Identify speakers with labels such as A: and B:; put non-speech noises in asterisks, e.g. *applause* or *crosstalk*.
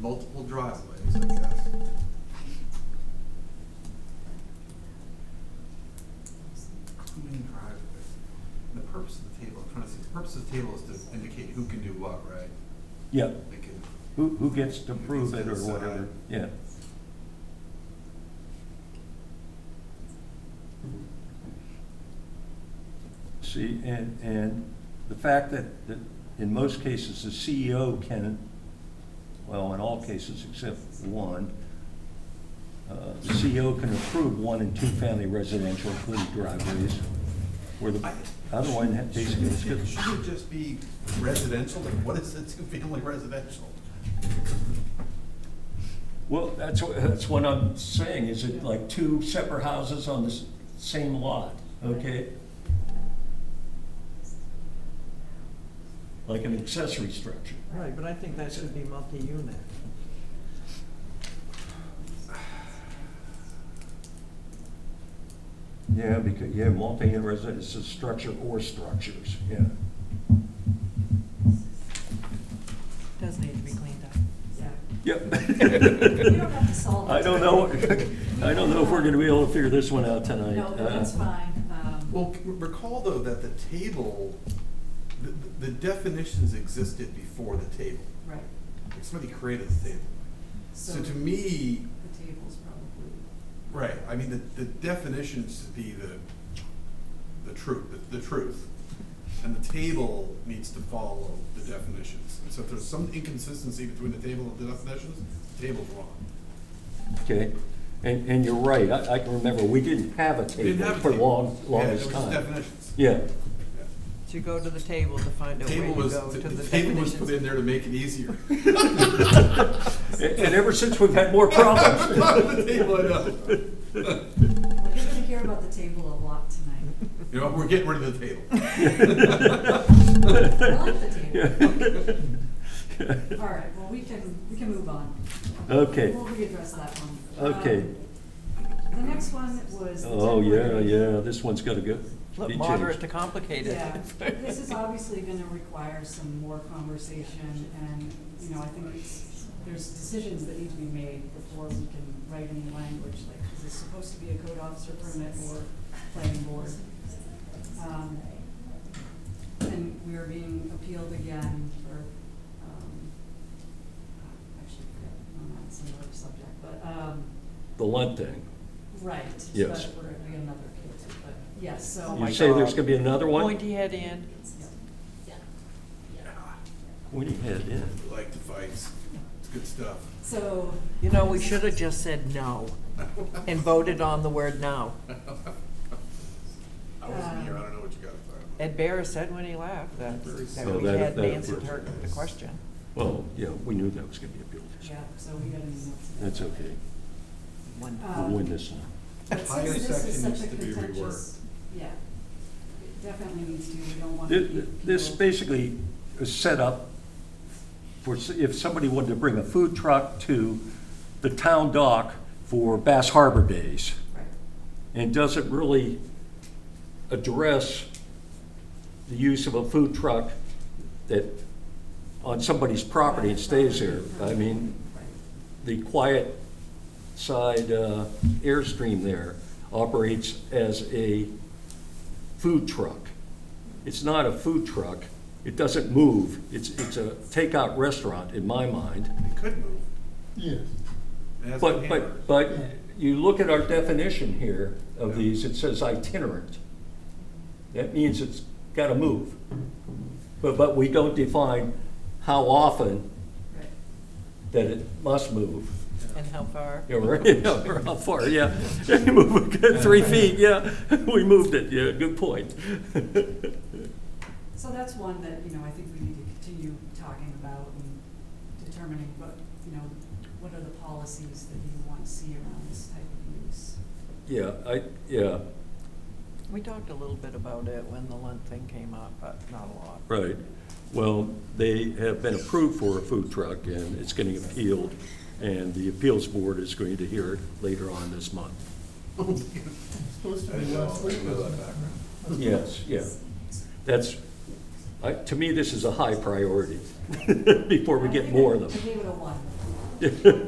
A: multiple driveways, I guess. Including driveways. And the purpose of the table, I'm trying to see, the purpose of the table is to indicate who can do what, right?
B: Yeah,
A: They can,
B: who, who gets to prove it or whatever, yeah. See, and, and the fact that, that in most cases, the CEO can, well, in all cases except one, uh, the CEO can approve one and two-family residential, including driveways, where the other one had basically it's
A: should
B: good.
A: it should it just be residential, like what is a two-family residential?
B: Well, that's, what- that's what I'm saying, is it like two separate houses on the s- same lot, okay? Like an accessory structure.
C: Right, but I think that should be multi-unit.
B: Yeah, because, yeah, multi-unit residence is structure or structures, yeah.
C: Does need to be cleaned up.
D: Yeah. *laughs*
B: Yep.
D: We don't have to solve it.
B: *laughs* I don't know, I don't know if we're gonna be able to figure this one out tonight.
D: No, but that's
B: Uh,
D: fine. Um,
A: Well, c- recall though that the table, the, the definitions existed before the table.
D: Right.
A: Like, Somebody created the table. So to me,
D: The table's probably,
A: right, I mean, the, the definitions should be the, the truth, the, the truth. And the table needs to follow the definitions. And so if there's some inconsistency between the table and the definitions, the table's wrong.
B: Okay, and, and you're right, I, I can remember, we didn't have a
A: We didn't
B: table
A: have a
B: for
A: table.
B: long, longest
A: Yeah, there was
B: time.
A: definitions.
B: Yeah,
A: Yeah.
C: So you go to the table to find out where
A: Table
C: you
A: was,
C: go to the
A: the table was put in
C: definitions.
A: there to make it
C: *laughs*
A: easier.
B: and, and ever since,
A: *laughs*
B: we've had more problems.
A: The table, I know. *laughs*
D: well, you're gonna hear about the table a lot tonight.
A: You know, we're getting rid of
B: *laughs*
A: the table.
D: All right, well, we can, we can move on.
B: Okay,
D: We'll readdress that one.
B: Okay.
D: Um, The next one was. the
B: oh, yeah,
D: temporary-
B: yeah, this one's gotta go.
C: Look,
B: be
C: Moderate to
B: changed.
C: complicated.
D: Yeah, this
C: *laughs*
D: is obviously gonna require some more conversation, and, you know, I think it's, there's decisions that need to be made before we can write any language, like, is this supposed to be a code officer permit or planning board? Um, And we are being appealed again for, um, uh, actually, I'm on a similar subject, but, um,
B: The Lunt thing.
D: right,
B: Yes.
D: but we're gonna be another appeal too, but, yes, so.
C: my
B: You say there's
C: God.
B: gonna be another one?
C: Pointy head in.
D: Yep.
B: When you head in.
A: We like the fights. It's good stuff.
D: So.
C: You know, we should have just said no and voted on the word no.
A: I wasn't here. I don't know what you got to
C: Ed Bear said when he left that, that
B: Oh,
C: we
B: that-
C: had
B: that-
C: answered her, the question.
B: Well, yeah, we knew that was gonna be a building.
D: Yeah, so we gotta move on.
B: That's okay,
C: One.
D: Uh,
B: we'll win this one.
D: But
A: Higher
D: since this is
A: section
D: such
A: needs to
D: a
A: be reworked.
D: contentious- Yeah, it definitely needs to, we don't want to
B: This,
D: keep
B: this
D: people.
B: basically is set up for, s- if somebody wanted to bring a food truck to the town dock for Bass Harbor Days,
D: Right,
B: and doesn't really address the use of a food truck that, on somebody's property and stays there. I mean,
D: right.
B: the quiet side uh, airstream there operates as a food truck. It's not a food truck. It doesn't move. It's, it's a takeout restaurant in my mind.
A: It could move.
E: Yes.
A: It has
B: But,
A: hammer.
B: but, but you look at our definition here of these, it says itinerant. That means it's gotta move. But, but we don't define how often
D: Right.
B: that it must move.
C: And
A: *laughs*
C: how far?
B: Yeah, right, *laughs* yeah, or how far, yeah. *laughs* You move it three feet, yeah, *laughs* we moved it, yeah, good point. *laughs*
D: So that's one that, you know, I think we need to continue talking about and determining what, you know, what are the policies that you want to see around this type of use?
B: Yeah, I, yeah,
C: We talked a little bit about it when the Lunt thing came up, but not a lot.
B: right. Well, they have been approved for a food truck, and it's getting appealed, and the appeals board is going to hear it later on this month.
E: Supposed
A: I
E: to be
A: didn't know,
E: last
A: I
E: week,
A: didn't know
E: wasn't
A: that
E: it?
A: background.
B: Yes, yeah. That's, I, to me, this is a high priority, *laughs* before we
D: I
B: get
D: think
B: more
D: I-
B: of
D: I
B: them.
D: gave it a one.
B: *laughs*